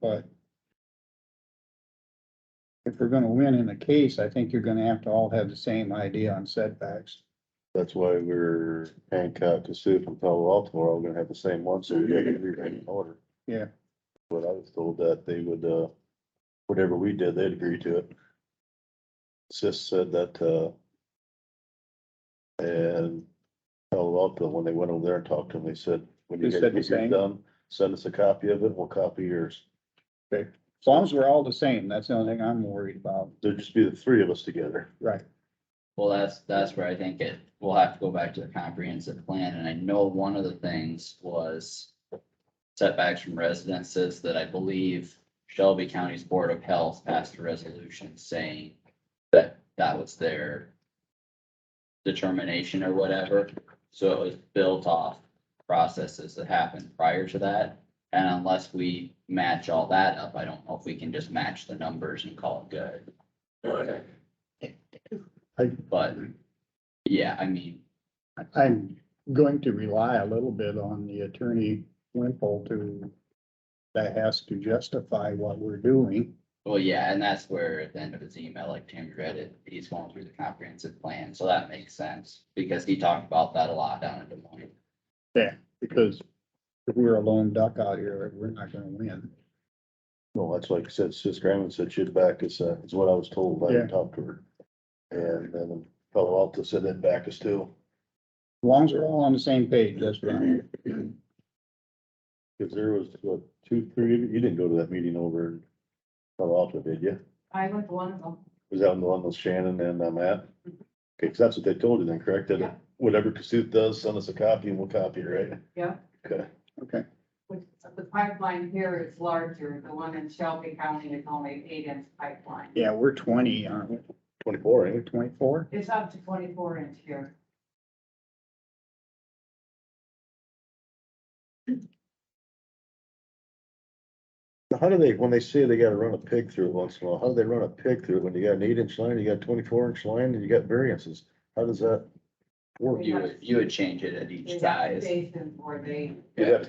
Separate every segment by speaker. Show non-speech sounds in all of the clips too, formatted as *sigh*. Speaker 1: but if we're gonna win in the case, I think you're gonna have to all have the same idea on setbacks.
Speaker 2: That's why we're Hancock, Cassup and Palo Alto are all gonna have the same one, so we gotta get everything
Speaker 1: *clears throat*
Speaker 2: in order.
Speaker 1: Yeah.
Speaker 2: But I was told that they would, uh, whatever we did, they'd agree to it. Sis said that, uh, and Palo Alto, when they went over there and talked to them, they said, when you
Speaker 1: They said
Speaker 2: guys
Speaker 1: the
Speaker 2: get yours
Speaker 1: same?
Speaker 2: done, send us a copy of it, we'll copy yours.
Speaker 1: As long as we're all the same, that's the only thing I'm worried about.
Speaker 2: There'd just be the three of us together.
Speaker 1: Right.
Speaker 3: Well, that's, that's where I think it, we'll have to go back to the comprehensive plan, and I know one of the things was setbacks from residences that I believe Shelby County's Board of Health passed a resolution saying that that was their determination or whatever, so it was built off processes that happened prior to that. And unless we match all that up, I don't know if we can just match the numbers and call it good. But, yeah, I mean,
Speaker 1: I'm going to rely a little bit on the attorney Wimple to, that has to justify what we're doing.
Speaker 3: well, yeah, and that's where at the end of his email, like Tim read it, he's going through the comprehensive plan, so that makes sense. Because he talked about that a lot down in Des Moines.
Speaker 1: Because if we're a lone duck out here, we're not gonna win.
Speaker 2: Well, that's like I said, Sis Graham said she'd back us, uh, is what I was told when
Speaker 1: Yeah.
Speaker 2: I talked to her. And then Palo Alto said they'd back us too,
Speaker 1: As long as we're all on the same page, that's what I'm.
Speaker 2: cause there was, what, two, three, of you you didn't go to that meeting over in Palo Alto, did you?
Speaker 4: I went to one oh, of them.
Speaker 2: Was that the one with Shannon and uh, Matt? Okay, cause that's what they told you then, correct? That
Speaker 4: Yeah.
Speaker 2: whatever Cassuth does, send us a copy and we'll copy it, right?
Speaker 4: Yeah.
Speaker 2: Okay,
Speaker 1: Okay,
Speaker 4: Which, the pipeline here is larger, the one in Shelby County is only eight inch pipeline.
Speaker 1: yeah, we're twenty, aren't we?
Speaker 2: twenty-four, ain't
Speaker 1: We're
Speaker 2: it?
Speaker 1: twenty-four?
Speaker 4: It's up to twenty-four inch here.
Speaker 2: Now, How do they, when they say they gotta run a pig through it once in a while, how do they run a pig through it when you got an eight inch line, you got twenty-four inch line, and you got variances? How does that work?
Speaker 3: You would, you would change it at each
Speaker 4: There's
Speaker 3: size.
Speaker 4: Stations where they.
Speaker 2: Yeah.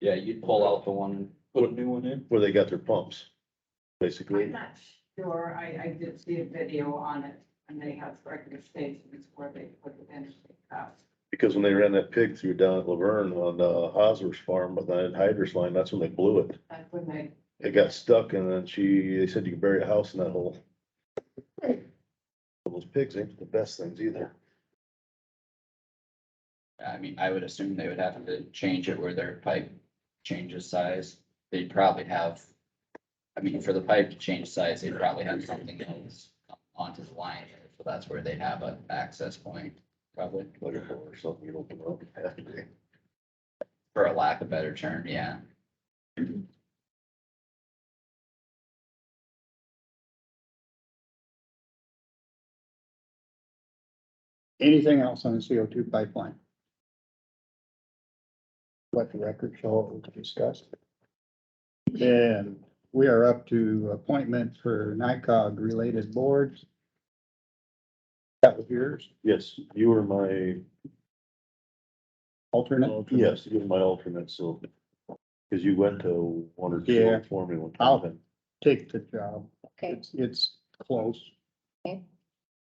Speaker 3: Yeah, you'd pull out the one, and put a new one in.
Speaker 2: where they got their pumps,
Speaker 4: I'm
Speaker 2: basically.
Speaker 4: not sure, I, I did see a video on it, and they have regular stations where they put the bench out.
Speaker 2: Because when they ran that pig through down at Laverne on, uh, Hosmer's farm, but then Hydra's line, that's when they blew it.
Speaker 4: That's when they,
Speaker 2: It got stuck and then she, they said you could bury a house in that hole. Those pigs ain't the best things either.
Speaker 3: I mean, I would assume they would have to change it where their pipe changes size. They'd probably have, I mean, for the pipe to change size, they'd probably have something else onto the line. So that's where they'd have an access point, probably,
Speaker 2: Like a hole or something, you don't know.
Speaker 3: for a lack of better term, yeah.
Speaker 1: Anything else on the CO2 pipeline? Let the record show it was discussed. And we are up to appointment for NICOG related boards. That was yours,
Speaker 2: Yes, you were my,
Speaker 1: alternate?
Speaker 2: yes, you were my alternate, so. Cause you went to one or
Speaker 1: Yeah.
Speaker 2: two for me one
Speaker 1: I'll-
Speaker 2: time.
Speaker 1: Take the job.
Speaker 5: Okay,
Speaker 1: It's, it's close.
Speaker 5: Okay.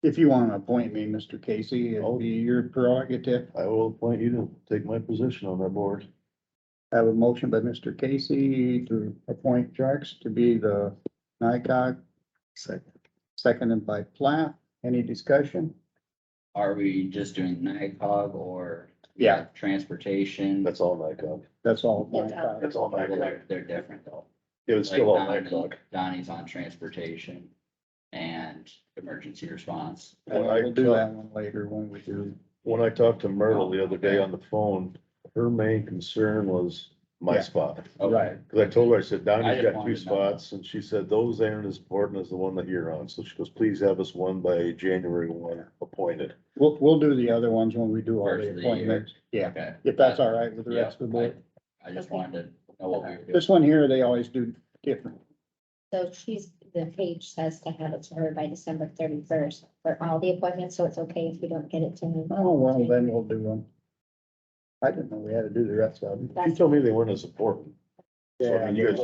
Speaker 1: If you want to appoint me, Mr. Casey, it'll be your prerogative.
Speaker 2: I will appoint you to take my position on that board.
Speaker 1: I have a motion by Mr. Casey to appoint Jarks to be the NICOG
Speaker 2: Second.
Speaker 1: Seconded by Plath. Any discussion?
Speaker 3: Are we just doing NICOG or?
Speaker 1: Yeah.
Speaker 3: Transportation?
Speaker 2: That's all I got.
Speaker 1: That's all.
Speaker 5: That's all.
Speaker 2: That's all
Speaker 3: Well, They're, they're different though.
Speaker 2: It was still
Speaker 3: Like
Speaker 2: all night
Speaker 3: Donnie-
Speaker 2: dog.
Speaker 3: Donnie's on transportation and emergency response.
Speaker 2: When I
Speaker 1: We'll do
Speaker 2: talk-
Speaker 1: that one later when we do.
Speaker 2: When I talked to Myrtle the other day on the phone, her main concern was my
Speaker 1: Yeah.
Speaker 2: spot.
Speaker 3: Okay.
Speaker 1: Right.
Speaker 2: Cause I told her, I said,
Speaker 3: I
Speaker 2: Donnie's
Speaker 3: just
Speaker 2: got
Speaker 3: wanted
Speaker 2: two
Speaker 3: to know.
Speaker 2: spots, and she said, those aren't as important as the one that you're on. So she goes, please have us one by January one appointed.
Speaker 1: We'll, we'll do the other ones when we do all
Speaker 3: First
Speaker 1: the
Speaker 3: of the year.
Speaker 1: appointments. Yeah,
Speaker 3: Okay.
Speaker 1: if that's all right with the
Speaker 3: Yeah,
Speaker 1: rest of the board.
Speaker 3: I I just wanted to know what we were doing.
Speaker 1: This one here, they always do different.
Speaker 5: so she's, the page says to have it to her by December thirty-first for all the appointments, so it's okay if you don't get it to me.
Speaker 1: Oh, well, then we'll do them. I didn't know we had to do the rest of them.
Speaker 2: She told me they weren't as important. So I mean, you guys